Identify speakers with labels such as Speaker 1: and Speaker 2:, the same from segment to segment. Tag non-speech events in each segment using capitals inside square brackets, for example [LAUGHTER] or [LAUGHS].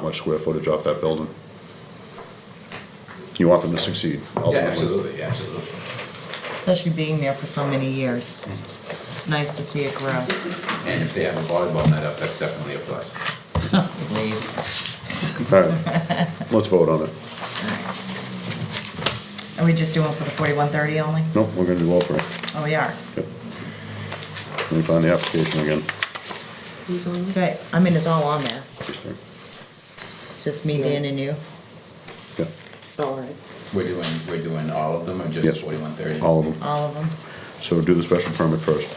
Speaker 1: how much square footage off that building. You want them to succeed.
Speaker 2: Yeah,
Speaker 1: ultimately.
Speaker 2: absolutely, absolutely.
Speaker 3: especially being there for so many years. It's nice to see it [LAUGHS] grow.
Speaker 2: And if they have a volleyball net up, that's definitely a plus.
Speaker 1: All right, let's vote on it.
Speaker 3: Are we just doing for the forty-one thirty only?
Speaker 1: Nope, we're gonna do all three.
Speaker 3: Oh, we are.
Speaker 1: Yep. Let me find the application again.
Speaker 3: Okay, I mean, it's all on there.
Speaker 1: Just there.
Speaker 3: It's just me, Dan, and you.
Speaker 1: Yeah,
Speaker 4: All right.
Speaker 2: We're doing, we're doing all of them or
Speaker 1: Yes.
Speaker 2: just forty-one thirty?
Speaker 1: all of them.
Speaker 3: All of them.
Speaker 1: So do the special permit first.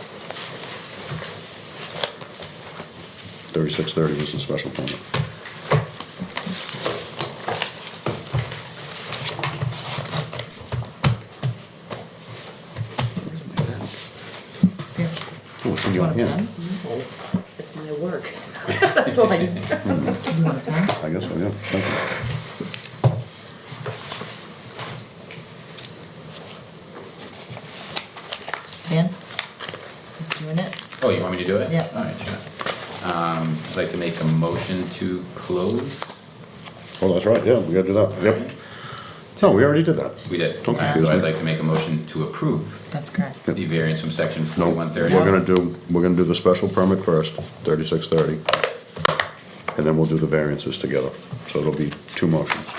Speaker 1: Thirty-six thirty was the special permit.
Speaker 3: Here.
Speaker 1: Oh, it's in
Speaker 3: You
Speaker 1: your
Speaker 3: want a
Speaker 1: hand.
Speaker 3: pen?
Speaker 4: It's my work. [LAUGHS] That's what I,
Speaker 3: You want a pen?
Speaker 1: I guess, so, yeah, thank you.
Speaker 3: Dan? Doing it?
Speaker 2: Oh, you want me to do it?
Speaker 3: Yeah.
Speaker 2: All right, sure. Um, I'd like to make a motion to close.
Speaker 1: Oh, that's right, yeah, we gotta do that, yep. No, we already did that.
Speaker 2: We did.
Speaker 1: Don't
Speaker 2: All right,
Speaker 1: confuse
Speaker 2: So I'd
Speaker 1: me.
Speaker 2: like to make a motion to approve
Speaker 3: That's correct.
Speaker 2: the variance from section
Speaker 1: No,
Speaker 2: forty-one
Speaker 1: we're
Speaker 2: thirty.
Speaker 1: gonna do, we're gonna do the special permit first, thirty-six thirty. And then we'll do the variances together, so it'll be two motions.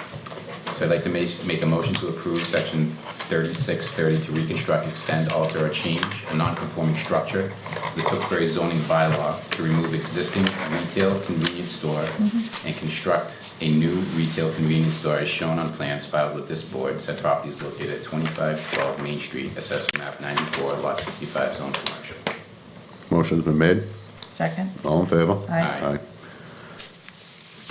Speaker 2: So I'd like to make, make a motion to approve section thirty-six thirty to reconstruct, extend, alter, or change a non-conforming structure, to the Tewksbury zoning bylaw, to remove existing retail convenience store and construct a new retail convenience store as shown on plans filed with this board. Said property is located at twenty-five twelve Main Street, assessor map ninety-four, lot sixty-five, zone commercial.
Speaker 1: Motion's been made,
Speaker 3: Second?
Speaker 1: all in favor?
Speaker 3: Aye.
Speaker 1: Aye.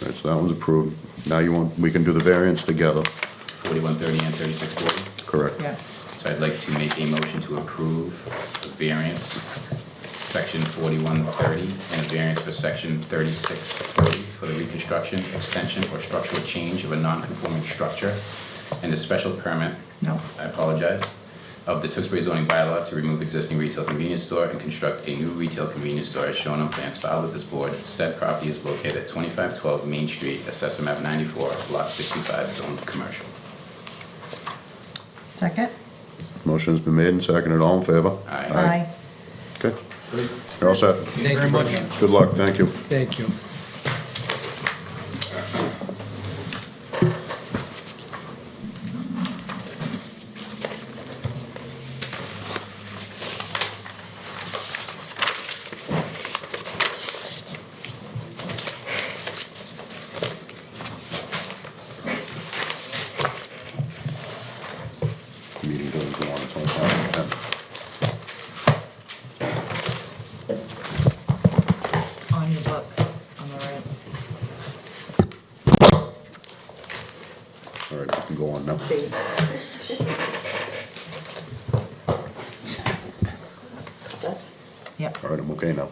Speaker 1: Alright, so that one's approved. Now you want, we can do the variance together,
Speaker 2: Forty-one thirty and thirty-six forty.
Speaker 1: correct?
Speaker 3: Yes.
Speaker 2: So I'd like to make a motion to approve the variance, section forty-one thirty, and a variance for section thirty-six forty for the reconstruction, extension, or structural change of a non-conforming structure, and a special permit,
Speaker 3: No.
Speaker 2: I apologize, of the Tewksbury zoning bylaw to remove existing retail convenience store and construct a new retail convenience store as shown on plans filed with this board. Said property is located at twenty-five twelve Main Street, assessor map ninety-four, lot sixty-five, zoned commercial.
Speaker 3: Second?
Speaker 1: Motion's been made and seconded, all in favor?
Speaker 2: Aye.
Speaker 3: Aye.
Speaker 1: Okay, you're all set.
Speaker 5: Thank you very much.
Speaker 1: Good luck, thank you.
Speaker 5: Thank you.
Speaker 1: Meeting doesn't go on until five ten.
Speaker 3: It's on your book, on the right.
Speaker 1: All right, we can go on now.
Speaker 4: see. Is that-
Speaker 3: Yep.
Speaker 1: All right, I'm okay now.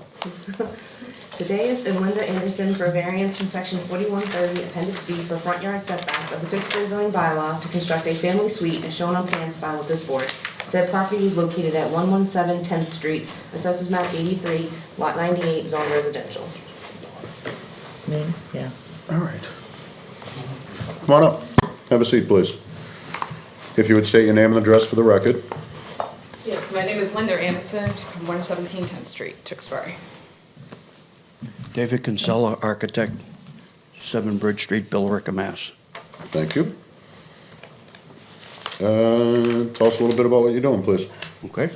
Speaker 4: Today is in Linda Anderson for variance from section forty-one thirty, appendix B, for front yard setback of the Tewksbury zoning bylaw to construct a family suite as shown on plans filed with this board. Said property is located at 117 10th street, assessors map eighty-three, lot ninety-eight, zone residential.
Speaker 3: Me? Yeah.
Speaker 1: All right. Come on up. Have a seat, please. If you would state your name and address for the record.
Speaker 6: Yes, my name is Linda Anderson, from 117 10th Street, Tewksbury.
Speaker 7: David Kinsella, architect, 7 Bridge Street, Billerica, Mass.
Speaker 1: Thank you. Uh, Tell us a little bit about what you're doing, please.
Speaker 7: Okay?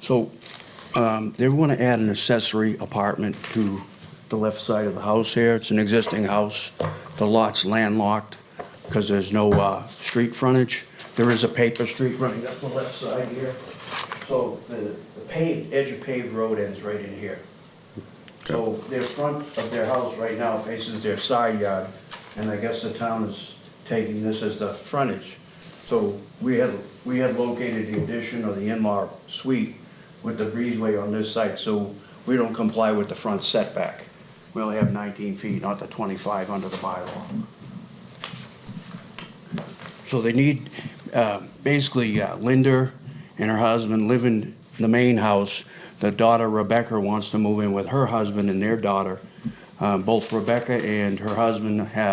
Speaker 7: So um, they want to add an accessory apartment to the left side of the house here. It's an existing house. The lot's landlocked because there's no uh, street frontage. There is a paper street running up the left side here. So the the paved, edge of paved road ends right in here. So their front of their house right now faces their side yard, and I guess the town is taking this as the frontage. So we had, we had located the addition or the in-law suite with the breezeway on this side, so we don't comply with the front setback. We only have 19 feet, not the 25 under the bylaw. So they need, uh, basically, uh, Linda and her husband live in the main house. The daughter Um, Rebecca wants to move in with her husband and their daughter. Uh, Both Rebecca and her husband have